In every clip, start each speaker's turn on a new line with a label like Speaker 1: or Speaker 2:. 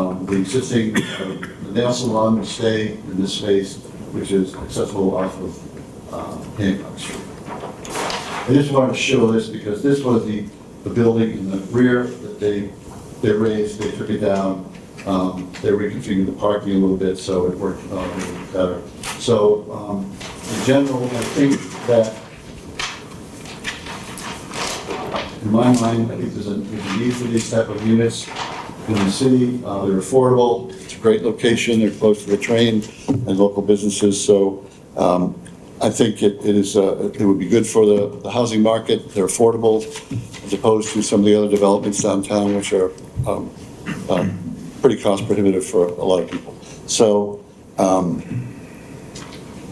Speaker 1: um, the existing uh, nail salon will stay in this space, which is accessible off of uh, Hancock Street. I just wanted to show this because this was the, the building in the rear that they, they raised, they took it down. Um, They reconfigured the parking a little bit, so it worked uh, a little better. So um, in general, I think that in my mind, I think there's a, there's a need for these type of units in the city. Uh, they're affordable, it's a great location, they're close to the train and local businesses, so, um, I think it, it is, uh, it would be good for the, the housing market, they're affordable, as opposed to some of the other developments downtown, which are, um, um, pretty cost prohibitive for a lot of people. So, um,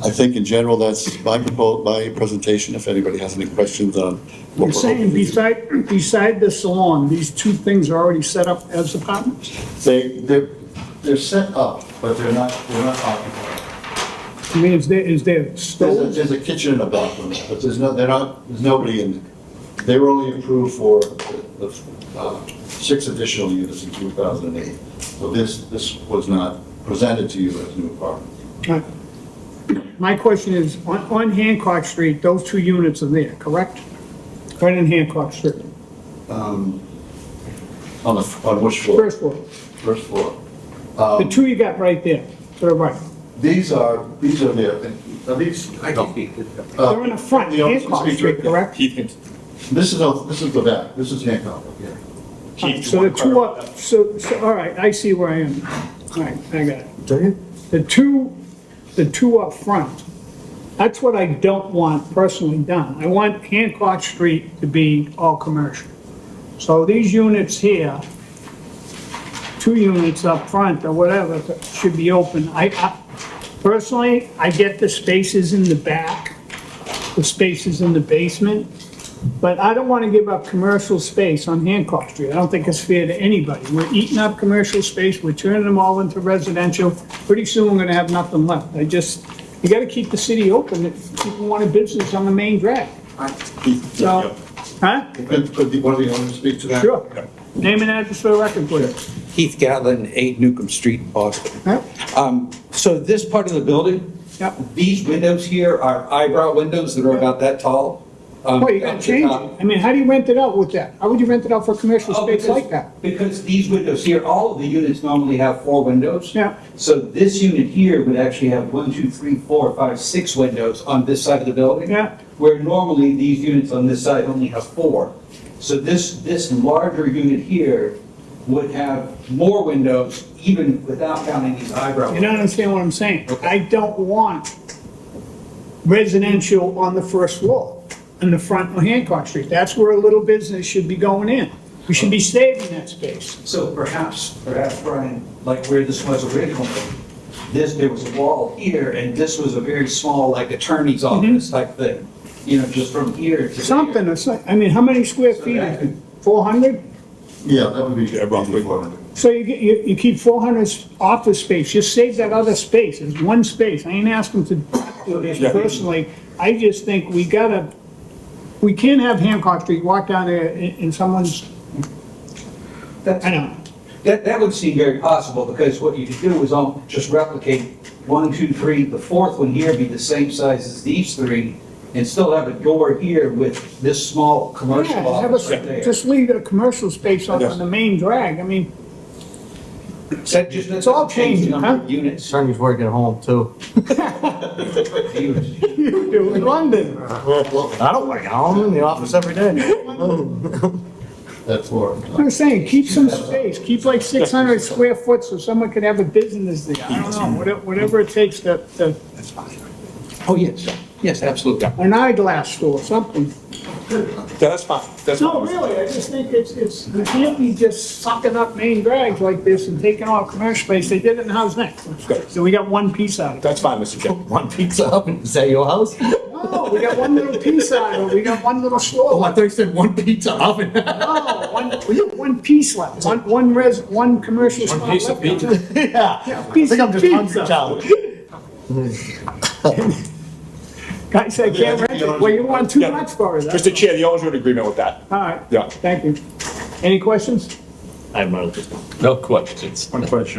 Speaker 1: I think in general, that's my proposal, my presentation, if anybody has any questions on. what we're
Speaker 2: You're
Speaker 1: hoping
Speaker 2: saying
Speaker 1: to do.
Speaker 2: beside, beside the salon, these two things are already set up as apartments?
Speaker 1: They, they're, they're set up, but they're not, they're not occupied.
Speaker 2: I mean, is there, is there
Speaker 1: There's a,
Speaker 2: stove?
Speaker 1: there's a kitchen in the bathroom, but there's no, they're not, there's nobody in. there. They were only approved for the, the, uh, six additional units in two thousand and eight. So this, this was not presented to you as new apartment.
Speaker 2: My question is, on, on Hancock Street, those two units are there, correct? Right in Hancock Street,
Speaker 1: On the, on which floor?
Speaker 2: first floor.
Speaker 1: First floor.
Speaker 2: The two you got right there, to the right.
Speaker 1: These are, these are there, are these?
Speaker 3: I
Speaker 1: no.
Speaker 3: can speak.
Speaker 1: Uh,
Speaker 2: They're in the front,
Speaker 1: you know,
Speaker 2: Hancock
Speaker 1: speak-
Speaker 2: Street, correct?
Speaker 4: Keith can,
Speaker 1: This is, a- this is the back, this is Hancock, yeah.
Speaker 4: Keith.
Speaker 2: So the two are, so, so, all right, I see where I am. All right, I got it. The two, the two up front, that's what I don't want personally done. I want Hancock Street to be all commercial. So these units here, two units up front or whatever, should be open. I, I, personally, I get the spaces in the back, the spaces in the basement, but I don't want to give up commercial space on Hancock Street. I don't think it's fair to anybody. We're eating up commercial space, we're turning them all into residential. Pretty soon, we're gonna have nothing left. I just, you gotta keep the city open if people want a business on the main drag.
Speaker 1: Keith, yeah.
Speaker 2: So, huh?
Speaker 1: Could, could the- one of the owners speak to that?
Speaker 2: Sure. Name and address for the record, please.
Speaker 3: Keith Gatlin, 8 Newcomb Street, Boston.
Speaker 2: Huh?
Speaker 3: Um, So this part of the building,
Speaker 2: Yep.
Speaker 3: these windows here are eyebrow windows that are about that tall. um,
Speaker 2: Well, you
Speaker 3: at
Speaker 2: gotta
Speaker 3: the
Speaker 2: change
Speaker 3: top.
Speaker 2: it. I mean, how do you rent it out with that? How would you rent it out for commercial
Speaker 3: Oh,
Speaker 2: space
Speaker 3: because-
Speaker 2: like that?
Speaker 3: Because these windows here, all of the units normally have four windows.
Speaker 2: Yeah.
Speaker 3: So this unit here would actually have one, two, three, four, five, six windows on this side of the building.
Speaker 2: Yeah.
Speaker 3: Where normally these units on this side only have four. So this, this larger unit here would have more windows even without counting these eyebrow
Speaker 2: You don't
Speaker 3: windows.
Speaker 2: understand what I'm saying? I don't want residential on the first floor, in the front of Hancock Street. That's where a little business should be going in. We should be saving that space.
Speaker 3: So perhaps, perhaps Brian, like where this was originally, this, there was a wall here and this was a very small, like attorney's office type thing. You know, just from here to there.
Speaker 2: Mm-hmm. Something, or so- I mean, how many square feet is it? 400?
Speaker 1: Yeah, that would be. Yeah,
Speaker 4: roughly.
Speaker 2: So you, get- you, you keep 400 office space, just save that other space, it's one space, I ain't asking to do this personally, I just think we gotta, we can't have Hancock Street, walk down there in, in someone's,
Speaker 3: That's-
Speaker 2: I don't know.
Speaker 3: That, that would seem very possible, because what you could do is all- just replicate one, two, three, the fourth one here be the same size as these three, and still have a door here with this small commercial
Speaker 2: Yeah, have a-
Speaker 3: office right there.
Speaker 2: Just leave a commercial space on, on the main drag, I mean,
Speaker 3: That just- that
Speaker 2: It's all
Speaker 3: doesn't change the
Speaker 2: changing,
Speaker 3: number of
Speaker 2: huh?
Speaker 3: Units.
Speaker 5: Sonny's working at home too.
Speaker 3: Units.
Speaker 2: you do in London.
Speaker 5: I don't work at home, I'm in the office every day.
Speaker 1: That floor.
Speaker 2: I'm saying, keep some space, keep like 600 square foot so someone could have a business there, I don't know, whatever, whatever it takes to, to,
Speaker 3: Oh, yes, yes, absolutely.
Speaker 2: an eyeglass store, something.
Speaker 4: That's fine, that's
Speaker 2: No,
Speaker 4: fine.
Speaker 2: really, I just think it's, it's, you can't be just sucking up main drags like this and taking all commercial space. They did it in House Next. So we got one piece out of it.
Speaker 4: That's fine, Mr. Chair.
Speaker 5: One pizza oven, is that your house? Oh,
Speaker 2: No, we got one little piece out of it. We got one little
Speaker 5: I
Speaker 2: store.
Speaker 5: thought you Oh, said one pizza oven.
Speaker 2: No, one, we got one piece left, one, one res, one commercial spot left.
Speaker 4: piece of pizza?
Speaker 5: Yeah. I
Speaker 2: piece
Speaker 5: think I'm
Speaker 2: of
Speaker 5: just hungry,
Speaker 2: pizza.
Speaker 5: child.
Speaker 2: Guy said, can't rent it. Well, you want too
Speaker 4: Yeah.
Speaker 2: much for it. that's
Speaker 4: Mr. Chair, the owners are in agreement with that.
Speaker 2: all. All right.
Speaker 4: Yeah.
Speaker 2: Thank you. Any questions?
Speaker 6: I have no, no questions.
Speaker 7: One question.